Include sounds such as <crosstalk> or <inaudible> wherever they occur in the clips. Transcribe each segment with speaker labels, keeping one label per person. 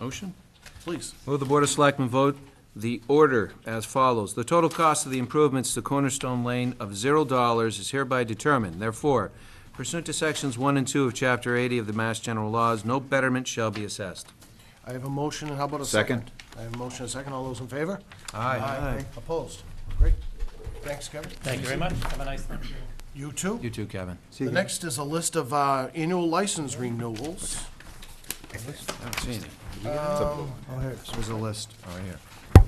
Speaker 1: Motion, please.
Speaker 2: Move the Board of Selectmen vote the order as follows. The total cost of the improvements to Cornerstone Lane of zero dollars is hereby determined. Therefore, pursuant to Sections 1 and 2 of Chapter 80 of the Mass General Laws, no betterment shall be assessed.
Speaker 1: I have a motion, and how about a second? I have a motion, and a second. All those in favor?
Speaker 2: Aye.
Speaker 1: Opposed? Great. Thanks, Kevin.
Speaker 3: Thank you very much. Have a nice Thanksgiving.
Speaker 1: You too.
Speaker 2: You too, Kevin.
Speaker 1: The next is a list of uh, annual license renewals.
Speaker 2: Haven't seen it.
Speaker 4: Oh, here, it's-
Speaker 5: There's a list, right here.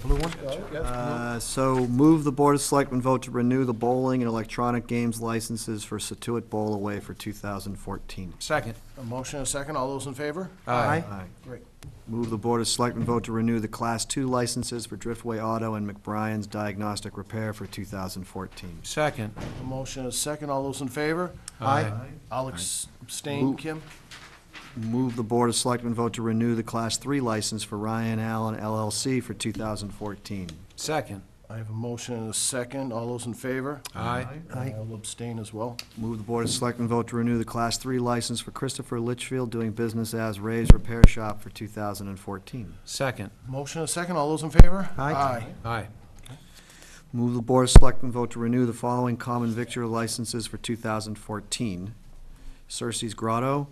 Speaker 1: Blue one?
Speaker 4: uh, So move the Board of Selectmen vote to renew the bowling and electronic games licenses for Situate Bowl away for 2014.
Speaker 2: Second.
Speaker 1: A motion, and a second. All those in favor?
Speaker 2: Aye.
Speaker 4: Aye.
Speaker 1: Great.
Speaker 4: Move the Board of Selectmen vote to renew the Class II licenses for Driftway Auto and McBrien's Diagnostic Repair for 2014.
Speaker 2: Second.
Speaker 1: A motion, and a second. All those in favor?
Speaker 2: Aye.
Speaker 1: I'll ex- abstain,
Speaker 4: Aye.
Speaker 1: Kim.
Speaker 4: Move the Board of Selectmen vote to renew the Class III license for Ryan Allen LLC for 2014.
Speaker 2: Second.
Speaker 1: I have a motion and a second. All those in favor?
Speaker 2: Aye.
Speaker 1: I'll abstain as well.
Speaker 4: Move the Board of Selectmen vote to renew the Class III license for Christopher Litchfield doing business as Ray's Repair Shop for 2014.
Speaker 2: Second.
Speaker 1: Motion, and a second. All those in favor?
Speaker 4: Aye.
Speaker 2: Aye.
Speaker 4: Move the Board of Selectmen vote to renew the following common victular licenses for 2014. Cersei's Grotto,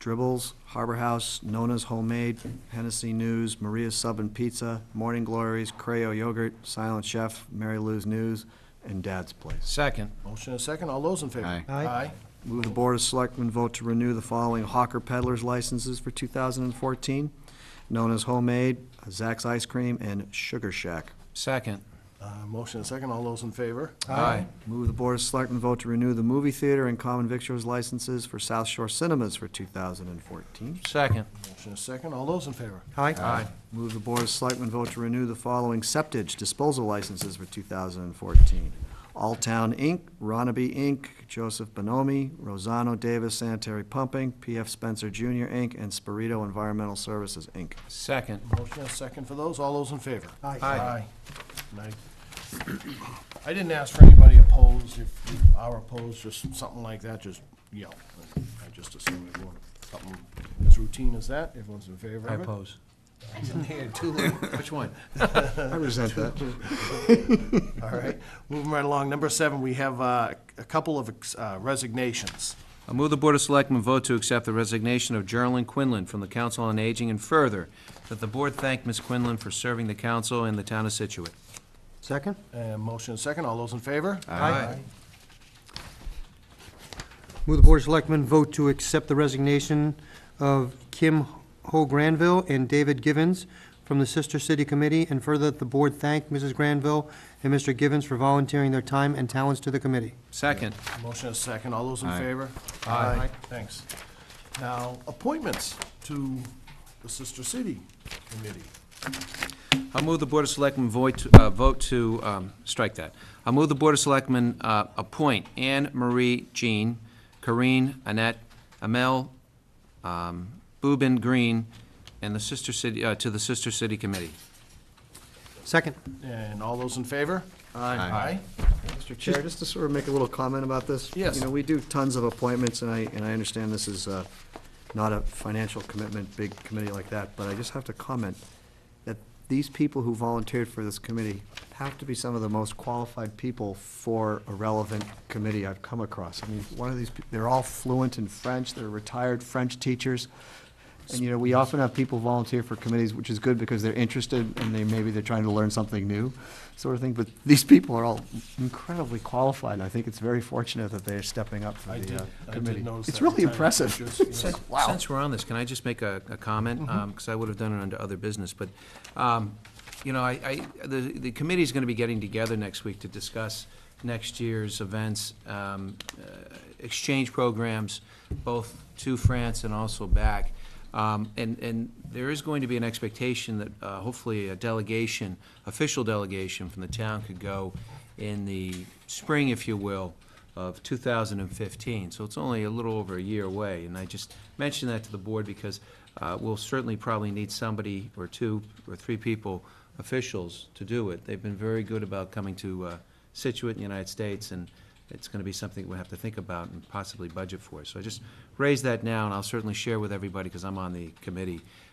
Speaker 4: Dribbles, Harbor House, Nona's Homemade, Hennessy News, Maria's Sub and Pizza, Morning Glories, Creo Yogurt, Silent Chef, Mary Lou's News, and Dad's Place.
Speaker 2: Second.
Speaker 1: Motion, and a second. All those in favor?
Speaker 5: Aye.
Speaker 1: Aye.
Speaker 4: Move the Board of Selectmen vote to renew the following hawker peddlers licenses for 2014. Nona's Homemade, Zack's Ice Cream, and Sugar Shack.
Speaker 2: Second.
Speaker 1: Uh, Motion, and a second. All those in favor?
Speaker 2: Aye.
Speaker 4: Move the Board of Selectmen vote to renew the movie theater and common victuals licenses for South Shore Cinemas for 2014.
Speaker 2: Second.
Speaker 1: Motion, and a second. All those in favor?
Speaker 2: Aye.
Speaker 4: Move the Board of Selectmen vote to renew the following septage disposal licenses for 2014. All Town Inc., Ronaby Inc., Joseph Bonomi, Rosano Davis Sanitary Pumping, P.F. Spencer Jr. Inc., and Spirito Environmental Services Inc.
Speaker 2: Second.
Speaker 1: Motion, and a second for those. All those in favor?
Speaker 2: Aye.
Speaker 1: And I <clears throat> I didn't ask for anybody opposed. If you are opposed, just something like that, just yell. I just assume everyone, something as routine as that, everyone's in favor
Speaker 2: I
Speaker 1: of it.
Speaker 2: oppose.
Speaker 1: <laughs> Yeah, two little- Which one?
Speaker 5: I resent that.
Speaker 1: <laughs> All right, moving right along. Number seven, we have uh, a couple of ex- uh, resignations.
Speaker 2: I move the Board of Selectmen vote to accept the resignation of Geraldine Quinlan from the Council on Aging, and further, that the Board thank Ms. Quinlan for serving the council and the town of Situate.
Speaker 4: Second?
Speaker 1: Uh, Motion and second, all those in favor?
Speaker 2: Aye.
Speaker 6: Move the Board of Selectmen vote to accept the resignation of Kim Ho Granville and David Givens from the Sister City Committee, and further that the Board thank Mrs. Granville and Mr. Givens for volunteering their time and talents to the committee.
Speaker 2: Second.
Speaker 1: Motion and second, all those in
Speaker 5: Aye.
Speaker 1: favor?
Speaker 2: Aye.
Speaker 1: Thanks. Now, appointments to the Sister City Committee.
Speaker 2: I'll move the Board of Selectmen vote, to- uh, vote to, um, strike that. I'll move the Board of Selectmen, uh, appoint Anne Marie Jean, Corinne Annette, Amel, um, Boobin Green, and the Sister City, uh, to the Sister City Committee.
Speaker 6: Second.
Speaker 1: And all those in favor? Aye.
Speaker 4: Mr. Chair, just to sort of make a little comment about this.
Speaker 1: Yes.
Speaker 4: You know, we do tons of appointments, and I, and I understand this is uh, not a financial commitment, big committee like that, but I just have to comment that these people who volunteered for this committee have to be some of the most qualified people for a relevant committee I've come across. I mean, one of these, pe- they're all fluent in French, they're retired French teachers. And, you know, we often have people volunteer for committees, which is good because they're interested and they, maybe they're trying to learn something new, sort of thing. But these people are all incredibly qualified, and I think it's very fortunate that they're stepping up for
Speaker 1: I
Speaker 4: the
Speaker 1: did,
Speaker 4: uh,
Speaker 1: I did
Speaker 4: committee.
Speaker 1: notice that.
Speaker 4: It's really
Speaker 1: retirement
Speaker 4: impressive.
Speaker 1: pictures,
Speaker 4: It's
Speaker 1: yes.
Speaker 4: like, wow.
Speaker 2: Since we're on this, can I just make a, a comment? Because I would have done it under other business, but, um, you know, I, I, the, the committee's gonna be getting together next week to discuss next year's events, um, uh, exchange programs, both to France and also back. Um, and, and there is going to be an expectation that, uh, hopefully a delegation, official delegation from the town could go in the spring, if you will, of 2015, so it's only a little over a year away. And I just mentioned that to the board because uh, we'll certainly probably need somebody or two or three people, officials, to do it. They've been very good about coming to uh, Situate in the United States, and it's going to be something we have to think about and possibly budget for. So I just raise that now, and I'll certainly share with everybody because I'm on the committee, uh,